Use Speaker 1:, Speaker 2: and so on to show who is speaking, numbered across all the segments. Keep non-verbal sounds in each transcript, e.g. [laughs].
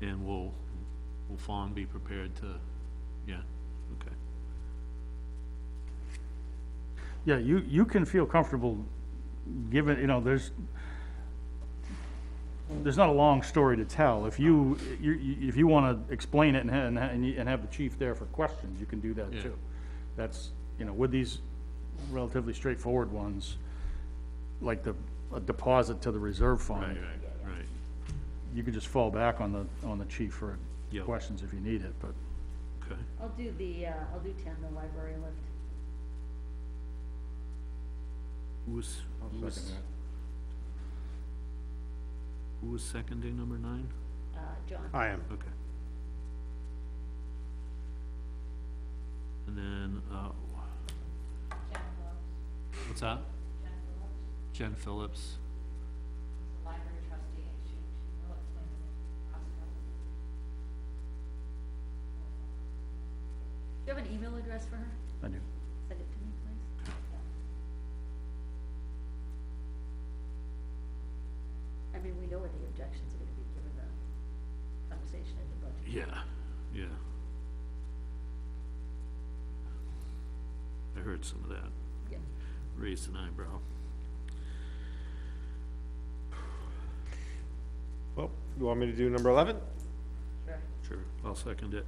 Speaker 1: And will, will Fawn be prepared to, yeah, okay.
Speaker 2: Yeah, you, you can feel comfortable, given, you know, there's, there's not a long story to tell. If you, you, you- if you want to explain it and, ha- and, ha- and you- and have the chief there for questions, you can do that
Speaker 1: Yeah.
Speaker 2: too. That's, you know, with these relatively straightforward ones, like the, a deposit to the reserve
Speaker 1: Right,
Speaker 2: fund,
Speaker 1: right, right.
Speaker 2: you could just fall back on the, on the chief for
Speaker 1: Yep.
Speaker 2: questions if you need it, but.
Speaker 1: Okay,
Speaker 3: I'll do the, uh, I'll do ten, the library lift.
Speaker 1: who was, who was, who was seconding number nine?
Speaker 3: Uh, John,
Speaker 4: I am.
Speaker 1: Okay. And then, uh, what's that? Jen Phillips.
Speaker 5: library trustee, and she, she will explain the process.
Speaker 3: do you have an email address for her?
Speaker 2: I do.
Speaker 3: Send it to me, please. I mean, we know what the objections are gonna be given the conversation in the budget.
Speaker 1: Yeah, yeah. I heard some of that,
Speaker 3: Yeah.
Speaker 1: raised an eyebrow.
Speaker 4: Well, you want me to do number 11?
Speaker 3: Sure.
Speaker 1: Sure. I'll second it.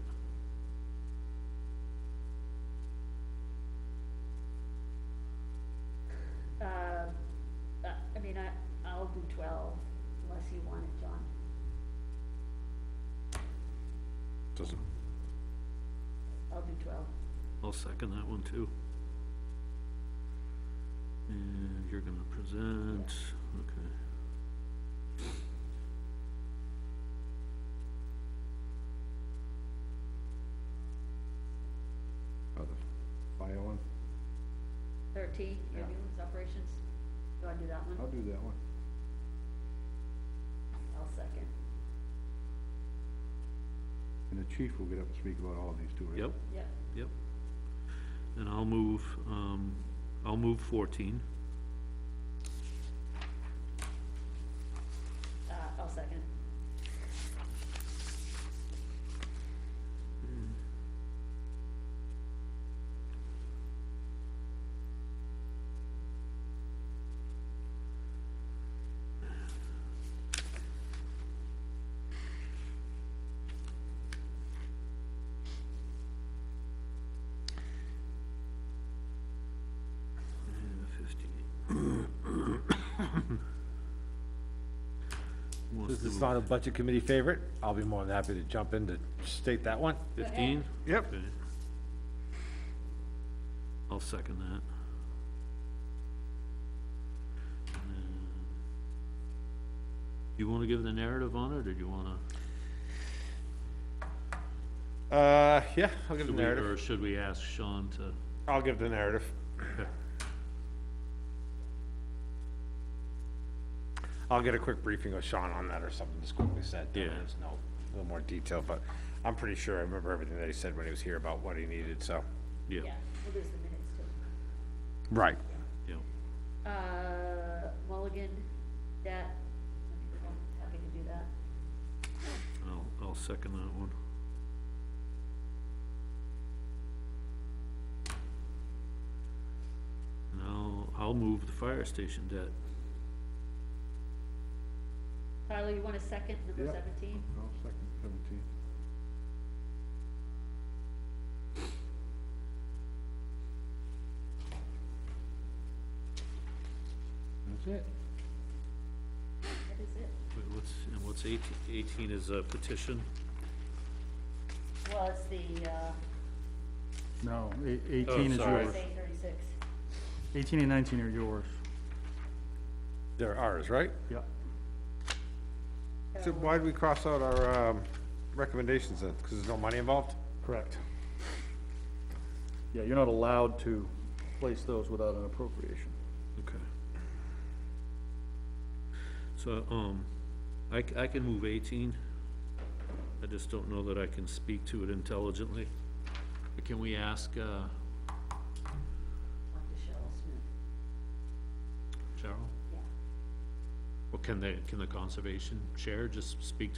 Speaker 3: Uh, uh, I mean, I, I'll do twelve, unless you want it, John.
Speaker 4: Doesn't.
Speaker 3: I'll do twelve.
Speaker 1: I'll second that one too. And you're gonna present, okay.
Speaker 4: Oh, the fire one?
Speaker 3: Thirteen,
Speaker 4: Yeah.
Speaker 3: ambulance operations. Do I do that one?
Speaker 4: do that one.
Speaker 3: I'll second.
Speaker 4: And the chief will get up and speak about all of these too, right?
Speaker 1: Yep,
Speaker 3: Yep.
Speaker 1: yep. And I'll move, um, I'll move fourteen. [coughs]
Speaker 3: Uh, I'll second.
Speaker 1: and Fifteen. Who wants
Speaker 6: This
Speaker 1: to
Speaker 6: is
Speaker 1: move?
Speaker 6: not a budget committee favorite. I'll be more than happy to jump in to state that one.
Speaker 1: Fifteen?
Speaker 4: Yep.
Speaker 1: Okay. I'll second that. And then- You wanna give the narrative on it, or do you wanna?
Speaker 4: Uh, yeah, I'll give the
Speaker 1: should we-
Speaker 4: narrative.
Speaker 1: Or should we ask Sean to?
Speaker 4: I'll give
Speaker 6: [laughs]
Speaker 4: the narrative. I'll get a quick briefing of Sean on that or something, just quickly said.
Speaker 1: Yeah.
Speaker 6: There's no,
Speaker 4: A little more detail, but I'm pretty sure I remember everything that he said when he was here about what he needed, so.
Speaker 1: Yeah,
Speaker 3: Yeah, well, there's the minutes too.
Speaker 4: Right.
Speaker 1: yeah.
Speaker 3: Uh, Mulligan, that, I'm happy to do that.
Speaker 1: I'll, I'll second that one. And I'll, I'll move the fire station debt.
Speaker 3: Tyler, you want a second, number
Speaker 4: Yep.
Speaker 3: seventeen?
Speaker 4: Oh, second, seventeen. That's it.
Speaker 3: That is it.
Speaker 1: Wait, What's, and what's eighteen? Eighteen is a petition?
Speaker 3: Well, it's the, uh,
Speaker 2: No, eight- eighteen is
Speaker 1: Oh, sorry.
Speaker 2: yours.
Speaker 3: RSA thirty-six.
Speaker 2: Eighteen and nineteen are yours.
Speaker 6: they're ours, right?
Speaker 2: Yeah.
Speaker 4: So why did we cross out our, um, recommendations then? Because there's no money involved?
Speaker 2: Correct. Yeah, you're not allowed to place those without an appropriation.
Speaker 1: Okay. So, um, I, c- I can move eighteen. I just don't know that I can speak to it intelligently. But Can we ask, uh,
Speaker 3: Talk to Cheryl Smith,
Speaker 1: Cheryl?
Speaker 3: yeah.
Speaker 1: Or can they, can the conservation chair just speak to